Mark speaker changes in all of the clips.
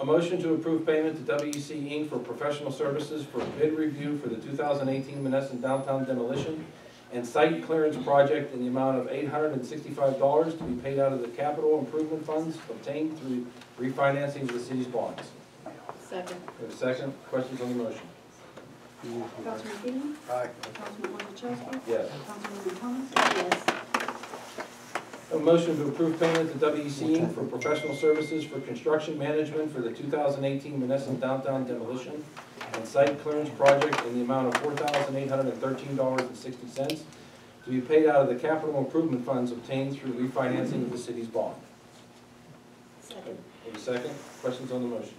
Speaker 1: A motion to approve payment to WEC Inc. for professional services for bid review for the 2018 Menneson Downtown demolition and site clearance project in the amount of $865 to be paid out of the capital improvement funds obtained through refinancing of the city's bonds.
Speaker 2: Second.
Speaker 1: We have a second, questions on the motion?
Speaker 3: Councilman Finn,
Speaker 4: Aye.
Speaker 3: Councilman Orzachowski,
Speaker 1: Yes.
Speaker 3: Councilwoman Thomas,
Speaker 2: Yes.
Speaker 1: A motion to approve payment to WEC Inc. for professional services for construction management for the 2018 Menneson Downtown demolition and site clearance project in the amount of $4,813.60 to be paid out of the capital improvement funds obtained through refinancing of the city's bond.
Speaker 2: Second.
Speaker 1: Any second, questions on the motion?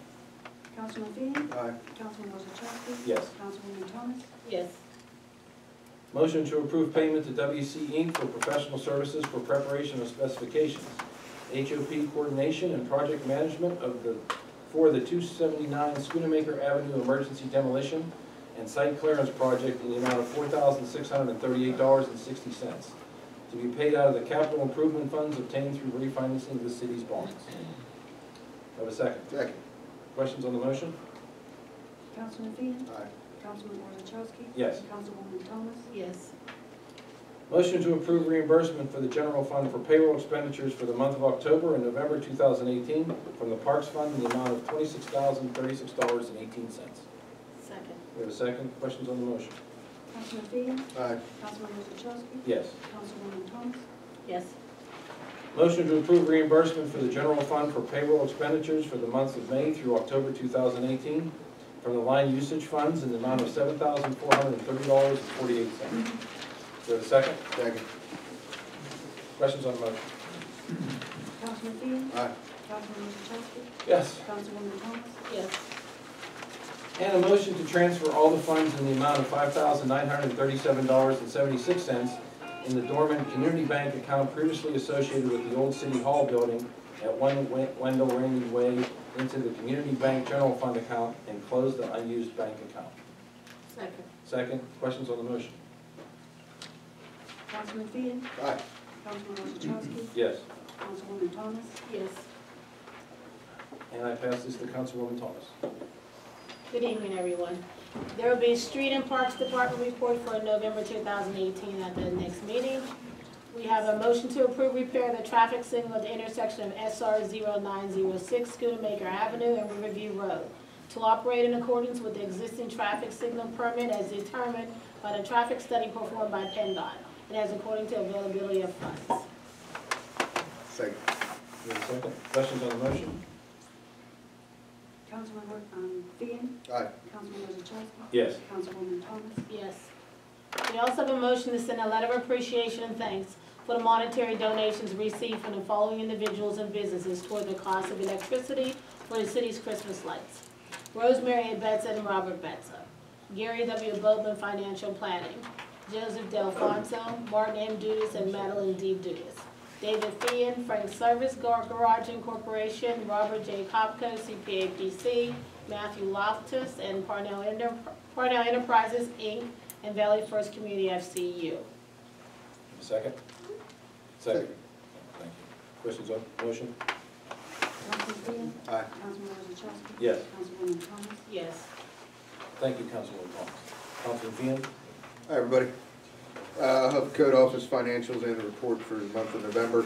Speaker 3: Councilman Finn,
Speaker 4: Aye.
Speaker 3: Councilman Orzachowski,
Speaker 1: Yes.
Speaker 3: Councilwoman Thomas,
Speaker 2: Yes.
Speaker 1: Motion to approve payment to WC Inc. for professional services for preparation of specifications, HOP coordination and project management of the, for the 279 Schoonamaker Avenue Emergency Demolition and Site Clearance Project in the amount of $4,638.60 to be paid out of the capital improvement funds obtained through refinancing of the city's bonds. Have a second.
Speaker 4: Second.
Speaker 1: Questions on the motion?
Speaker 3: Councilman Finn,
Speaker 4: Aye.
Speaker 3: Councilman Orzachowski.
Speaker 1: Yes.
Speaker 3: Councilwoman Thomas,
Speaker 2: Yes.
Speaker 1: Motion to approve reimbursement for the general fund for payroll expenditures for the month of October and November 2018 from the Parks Fund in the amount of $26,036.18.
Speaker 2: Second.
Speaker 1: We have a second, questions on the motion?
Speaker 3: Councilman Finn,
Speaker 4: Aye.
Speaker 3: Councilman Orzachowski,
Speaker 1: Yes.
Speaker 3: Councilwoman Thomas,
Speaker 2: Yes.
Speaker 1: Motion to approve reimbursement for the general fund for payroll expenditures for the months of May through October 2018 from the line usage funds in the amount of $7,430.48. Do we have a second?
Speaker 4: Second.
Speaker 1: Questions on the motion?
Speaker 3: Councilman Finn,
Speaker 4: Aye.
Speaker 3: Councilman Orzachowski,
Speaker 1: Yes.
Speaker 3: Councilwoman Thomas,
Speaker 2: Yes.
Speaker 1: And a motion to transfer all the funds in the amount of five thousand nine hundred and thirty-seven dollars and seventy-six cents in the dormant community bank account previously associated with the old city hall building at one Wen- Wendell Rainey Way into the community bank general fund account and close the unused bank account.
Speaker 2: Second.
Speaker 1: Second, questions on the motion?
Speaker 3: Councilman Finn,
Speaker 4: Aye.
Speaker 3: Councilman Orzachowski,
Speaker 1: Yes.
Speaker 3: Councilwoman Thomas,
Speaker 2: Yes.
Speaker 1: And I pass this to Councilwoman Thomas.
Speaker 2: Good evening, everyone. There will be Street and Parks Department report for November 2018 at the next meeting. We have a motion to approve repair of the traffic signal at the intersection of SR 0906 Schoonamaker Avenue and Riverview Road to operate in accordance with the existing traffic signal permit as determined by the traffic study performed by PennDOT and as according to availability of funds.
Speaker 4: Second.
Speaker 1: You have a second? Questions on the motion?
Speaker 3: Councilman, Or- um, Finn,
Speaker 4: Aye.
Speaker 3: Councilman Orzachowski.
Speaker 1: Yes.
Speaker 3: Councilwoman Thomas,
Speaker 2: Yes. We also have a motion to send a letter of appreciation and thanks for the monetary donations received from the following individuals and businesses toward the cost of electricity for the city's Christmas lights. Rosemary A. Betza and Robert Betza. Gary W. Boatman, Financial Planning. Joseph Delfonso, Martin M. Dudas, and Madeline D. Dudas. David Fien, Frank Service Gar- Garage Incorporation, Robert J. Kopko, CPA PC, Matthew Loftus, and Parnell Enter- Parnell Enterprises, Inc., and Valley First Community FCU.
Speaker 1: You have a Second? Second. Thank you. Questions on the motion?
Speaker 3: Councilman Finn,
Speaker 4: Aye.
Speaker 3: Councilman Orzachowski.
Speaker 1: Yes.
Speaker 3: Councilwoman Thomas,
Speaker 2: Yes.
Speaker 1: Thank you, Councilwoman Thomas. Councilman Fian?
Speaker 4: Hi, everybody. Uh, Hub Code Office Financials and the report for the month of November.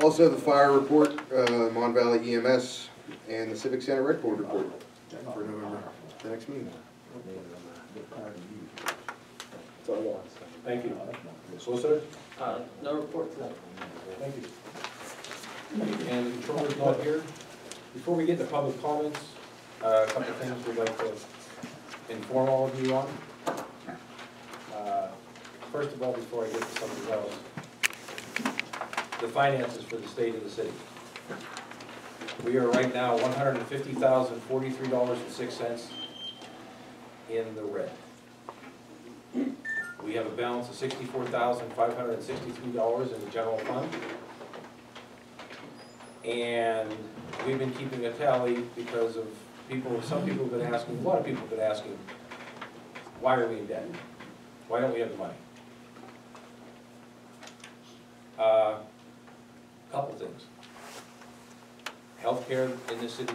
Speaker 4: Also, the fire report, uh, Mon Valley EMS, and the Civic Center Red Board report for November, the next meeting.
Speaker 1: That's all I want. Thank you. Solicitor?
Speaker 5: Uh, No report tonight.
Speaker 1: Thank you. And the controller's not here. Before we get to public comments, uh, a couple of things we'd like to inform all of you on. Uh, First of all, before I get to something else, the finances for the state of the city. We are right now one hundred and fifty thousand, forty-three dollars and six cents in the red. We have a balance of sixty-four thousand, five hundred and sixty-three dollars in the general fund. And we've been keeping a tally because of people, some people have been asking, a lot of people have been asking, why are we in debt? Why don't we have the money? Uh, Couple things. Healthcare in this city